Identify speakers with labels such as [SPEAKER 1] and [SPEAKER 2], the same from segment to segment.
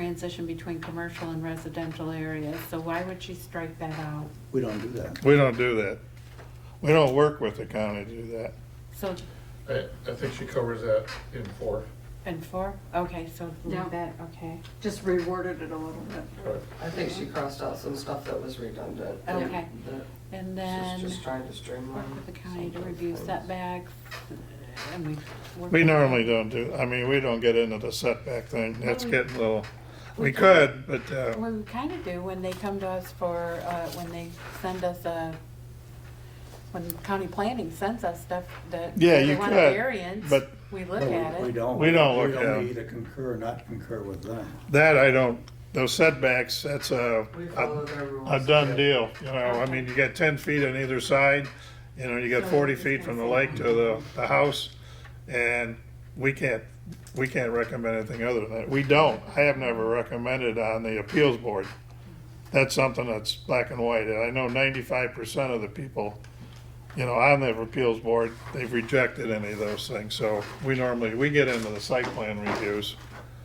[SPEAKER 1] transition between commercial and residential areas, so why would she strike that out?
[SPEAKER 2] We don't do that.
[SPEAKER 3] We don't do that. We don't work with the county to do that.
[SPEAKER 1] So,
[SPEAKER 4] I, I think she covers that in four.
[SPEAKER 1] and four, okay, so
[SPEAKER 5] No.
[SPEAKER 1] leave that, okay,
[SPEAKER 5] Just reworded it a little bit.
[SPEAKER 4] Right.
[SPEAKER 6] I think she crossed out some stuff that was redundant. that-
[SPEAKER 1] Oh, Okay.
[SPEAKER 6] that
[SPEAKER 1] and
[SPEAKER 6] She's
[SPEAKER 1] then
[SPEAKER 6] just trying to streamline.
[SPEAKER 1] work with the county to
[SPEAKER 6] some of those
[SPEAKER 1] review
[SPEAKER 6] things.
[SPEAKER 1] setbacks, and we. work
[SPEAKER 3] We
[SPEAKER 1] with-
[SPEAKER 3] normally don't do, I mean, we don't get into the setback thing. That's getting a little, we could, but, uh,
[SPEAKER 1] Well, we kind of do when they come to us for, uh, when they send us a, when county planning sends us stuff that.
[SPEAKER 3] Yeah,
[SPEAKER 1] they
[SPEAKER 3] you
[SPEAKER 1] want a
[SPEAKER 3] could,
[SPEAKER 1] variance,
[SPEAKER 3] but-
[SPEAKER 1] We
[SPEAKER 2] But
[SPEAKER 1] look
[SPEAKER 2] we-
[SPEAKER 1] at
[SPEAKER 2] We
[SPEAKER 1] it.
[SPEAKER 2] don't.
[SPEAKER 3] We don't look
[SPEAKER 2] We
[SPEAKER 3] at 'em.
[SPEAKER 2] either concur or not concur with them.
[SPEAKER 3] that I don't, those setbacks, that's a,
[SPEAKER 6] We follow
[SPEAKER 3] a-
[SPEAKER 6] their rules.
[SPEAKER 3] a done deal. You know, I mean, you got ten feet on either side, you know, you got
[SPEAKER 1] So
[SPEAKER 3] forty
[SPEAKER 1] it's
[SPEAKER 3] feet from the
[SPEAKER 1] gonna
[SPEAKER 3] lake
[SPEAKER 1] say-
[SPEAKER 3] to the, the house. And we can't, we can't recommend anything other than that. We don't. I have never recommended on the appeals board. That's something that's black and white. And I know ninety-five percent of the people you know, on the appeals board, they've rejected any of those things, so we normally, we get into the site plan reviews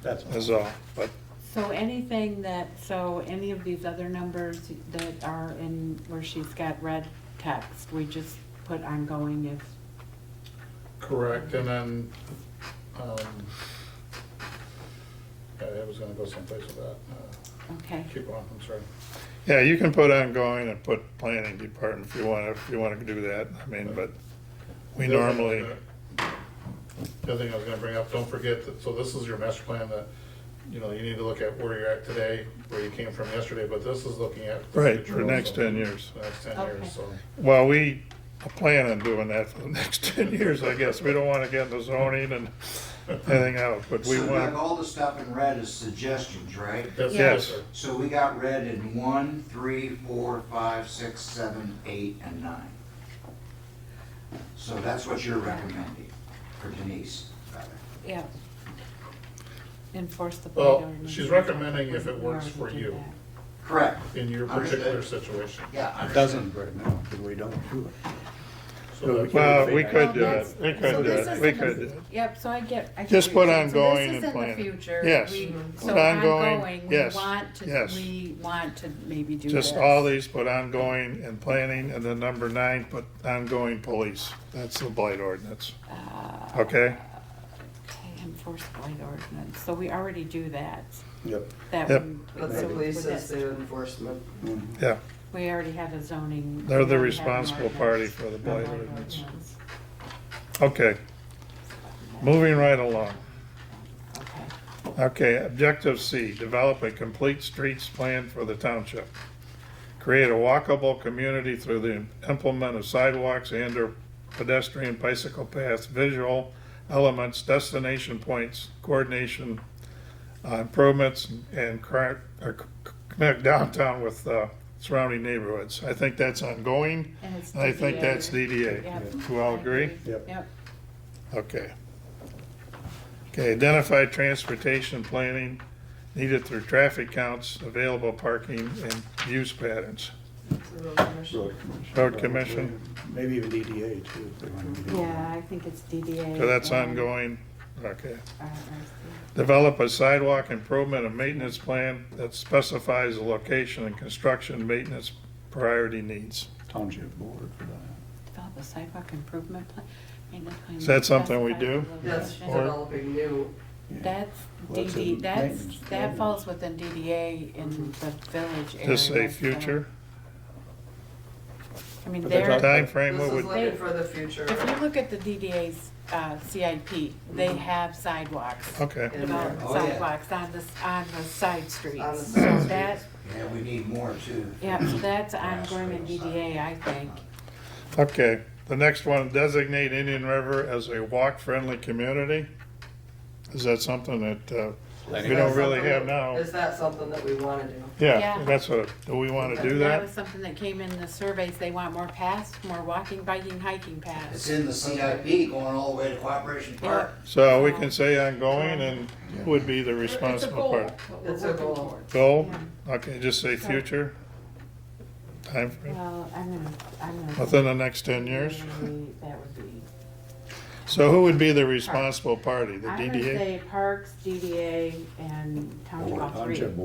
[SPEAKER 2] That's
[SPEAKER 3] as
[SPEAKER 2] all.
[SPEAKER 3] well, but
[SPEAKER 1] So anything that, so any of these other numbers that are in, where she's got red text, we just put ongoing if.
[SPEAKER 4] Correct, and then, um, I was gonna go someplace with that. Uh,
[SPEAKER 1] Okay,
[SPEAKER 4] Keep on, I'm sorry.
[SPEAKER 3] Yeah, you can put ongoing and put planning department if you want, if you want to do that, I mean, but we
[SPEAKER 4] The other thing
[SPEAKER 3] normally,
[SPEAKER 4] that- The other thing I was gonna bring up, don't forget that, so this is your master plan that, you know, you need to look at where you're at today, where you came from yesterday, but this is looking at. the
[SPEAKER 3] Right,
[SPEAKER 4] future
[SPEAKER 3] for the next
[SPEAKER 4] also.
[SPEAKER 3] 10 years.
[SPEAKER 4] The Next ten
[SPEAKER 1] Okay.
[SPEAKER 4] years, so.
[SPEAKER 3] well, we plan on doing that for the next ten years, I guess, we don't want to get into zoning and anything else, but we
[SPEAKER 7] So Doug,
[SPEAKER 3] want,
[SPEAKER 7] all the stuff in red is suggestions, right?
[SPEAKER 4] that's-
[SPEAKER 3] Yes.
[SPEAKER 4] sir.
[SPEAKER 7] So we got red in one, three, four, five, six, seven, eight, and nine. So that's what you're recommending, for Denise, rather.
[SPEAKER 1] yeah. Enforce the. plate
[SPEAKER 4] Well,
[SPEAKER 1] ordinance.
[SPEAKER 4] she's recommending if it works
[SPEAKER 1] We
[SPEAKER 4] for
[SPEAKER 1] already did
[SPEAKER 4] you.
[SPEAKER 1] that.
[SPEAKER 7] Correct,
[SPEAKER 4] in your particular situation.
[SPEAKER 7] yeah.
[SPEAKER 2] It
[SPEAKER 7] understood.
[SPEAKER 2] doesn't right now, because we don't do it.
[SPEAKER 4] So that's-
[SPEAKER 3] well, we could do it, we
[SPEAKER 1] So
[SPEAKER 3] could do
[SPEAKER 1] this
[SPEAKER 3] it,
[SPEAKER 1] is
[SPEAKER 3] we
[SPEAKER 1] the-
[SPEAKER 3] could do it.
[SPEAKER 1] Yep, so I get. I get
[SPEAKER 3] Just
[SPEAKER 1] what
[SPEAKER 3] put
[SPEAKER 1] you're saying. So this
[SPEAKER 3] ongoing
[SPEAKER 1] is
[SPEAKER 3] and
[SPEAKER 1] in the
[SPEAKER 3] planning.
[SPEAKER 1] future.
[SPEAKER 3] Yes.
[SPEAKER 1] We-
[SPEAKER 3] Mhm.
[SPEAKER 1] So
[SPEAKER 3] Put ongoing,
[SPEAKER 1] ongoing, we
[SPEAKER 3] yes,
[SPEAKER 1] want to,
[SPEAKER 3] yes.
[SPEAKER 1] we want to maybe do this.
[SPEAKER 3] Just all these, put ongoing and planning, and then number nine, put ongoing police. That's the blight ordinance,
[SPEAKER 1] Uh, Okay,
[SPEAKER 3] okay?
[SPEAKER 1] enforce blight ordinance, so we already do that.
[SPEAKER 2] Yep.
[SPEAKER 1] That
[SPEAKER 3] Yep.
[SPEAKER 1] one-
[SPEAKER 6] But the
[SPEAKER 1] so
[SPEAKER 6] police
[SPEAKER 1] with
[SPEAKER 6] is
[SPEAKER 1] that-
[SPEAKER 6] the enforcement.
[SPEAKER 2] Mhm.
[SPEAKER 3] Yeah,
[SPEAKER 1] We already have a zoning.
[SPEAKER 3] They're
[SPEAKER 1] we
[SPEAKER 3] the
[SPEAKER 1] already have an
[SPEAKER 3] responsible
[SPEAKER 1] ordinance.
[SPEAKER 3] party for the
[SPEAKER 1] A
[SPEAKER 3] blight ordinance. okay, moving right along.
[SPEAKER 1] Okay.
[SPEAKER 3] Okay, objective C, develop a complete streets plan for the township. Create a walkable community through the implement of sidewalks and or pedestrian bicycle paths, visual elements, destination points, coordination, uh, improvements and cra- or c- connect downtown with, uh, surrounding neighborhoods. I think that's ongoing.
[SPEAKER 1] And it's
[SPEAKER 3] I think
[SPEAKER 1] DDA.
[SPEAKER 3] that's DDA.
[SPEAKER 1] Yep.
[SPEAKER 3] Do you all agree?
[SPEAKER 2] Yep.
[SPEAKER 1] Yep,
[SPEAKER 3] Okay. Okay, identify transportation planning needed through traffic counts, available parking, and use patterns.
[SPEAKER 6] It's a real commission.
[SPEAKER 2] Road commission.
[SPEAKER 3] Road commission.
[SPEAKER 2] Maybe even DDA too, if they want to. do that.
[SPEAKER 1] yeah, I think it's DDA.
[SPEAKER 3] So that's
[SPEAKER 1] and
[SPEAKER 3] ongoing, okay.
[SPEAKER 1] Uh, RRC.
[SPEAKER 3] Develop a sidewalk improvement and maintenance plan that specifies the location and construction maintenance priority needs.
[SPEAKER 2] Township board for that.
[SPEAKER 1] Develop a sidewalk improvement plan, maintenance plan.
[SPEAKER 3] Is that something we do?
[SPEAKER 6] That's
[SPEAKER 1] Specify the location.
[SPEAKER 6] developing new.
[SPEAKER 2] Yeah.
[SPEAKER 1] That's
[SPEAKER 2] Well, that's
[SPEAKER 1] DD,
[SPEAKER 2] a
[SPEAKER 1] that's,
[SPEAKER 2] maintenance
[SPEAKER 1] that
[SPEAKER 2] plan.
[SPEAKER 1] falls within DDA in the village area.
[SPEAKER 3] Just say
[SPEAKER 1] so-
[SPEAKER 3] future
[SPEAKER 1] I mean,
[SPEAKER 2] But that's
[SPEAKER 1] they're.
[SPEAKER 2] not-
[SPEAKER 3] timeframe,
[SPEAKER 6] This
[SPEAKER 3] what
[SPEAKER 6] is
[SPEAKER 3] would,
[SPEAKER 6] looking for the future.
[SPEAKER 1] If you look at the DDA's uh, CIP, they have sidewalks,
[SPEAKER 3] okay,
[SPEAKER 6] Yeah.
[SPEAKER 1] developed
[SPEAKER 7] Oh, yeah.
[SPEAKER 1] sidewalks on the, on the side streets.
[SPEAKER 6] On the
[SPEAKER 1] So
[SPEAKER 6] side
[SPEAKER 1] that,
[SPEAKER 7] Yeah, we need more too.
[SPEAKER 1] yeah, so that's
[SPEAKER 7] Grass
[SPEAKER 1] ongoing in
[SPEAKER 7] rails.
[SPEAKER 1] DDA, I think.
[SPEAKER 3] okay. The next one, designate Indian River as a walk-friendly community. Is that something that, uh,
[SPEAKER 6] Is
[SPEAKER 3] We
[SPEAKER 6] that
[SPEAKER 3] don't really
[SPEAKER 6] something
[SPEAKER 3] have
[SPEAKER 6] that-
[SPEAKER 3] now.
[SPEAKER 6] Is that something that we want to do?
[SPEAKER 3] Yeah,
[SPEAKER 1] Yeah.
[SPEAKER 3] that's what, do we want to do
[SPEAKER 1] That
[SPEAKER 3] that?
[SPEAKER 1] was something that came in the surveys, they want more paths, more walking, biking, hiking
[SPEAKER 7] It's
[SPEAKER 1] paths.
[SPEAKER 7] in the CIP going all the way to Cooperation Park.
[SPEAKER 3] So we can say ongoing and who would be the
[SPEAKER 1] It's a goal,
[SPEAKER 3] responsible part.
[SPEAKER 1] what we're
[SPEAKER 6] It's a
[SPEAKER 1] working
[SPEAKER 6] goal.
[SPEAKER 1] towards.
[SPEAKER 3] Goal, okay, just say future timeframe,
[SPEAKER 1] Well, I'm gonna, I'm gonna.
[SPEAKER 3] within the next ten years.
[SPEAKER 1] That would be.
[SPEAKER 3] So who would be the responsible party? The
[SPEAKER 1] I'm
[SPEAKER 3] DDA?
[SPEAKER 1] gonna say parks, DDA, and township all
[SPEAKER 2] Board,
[SPEAKER 1] three.
[SPEAKER 2] Township board.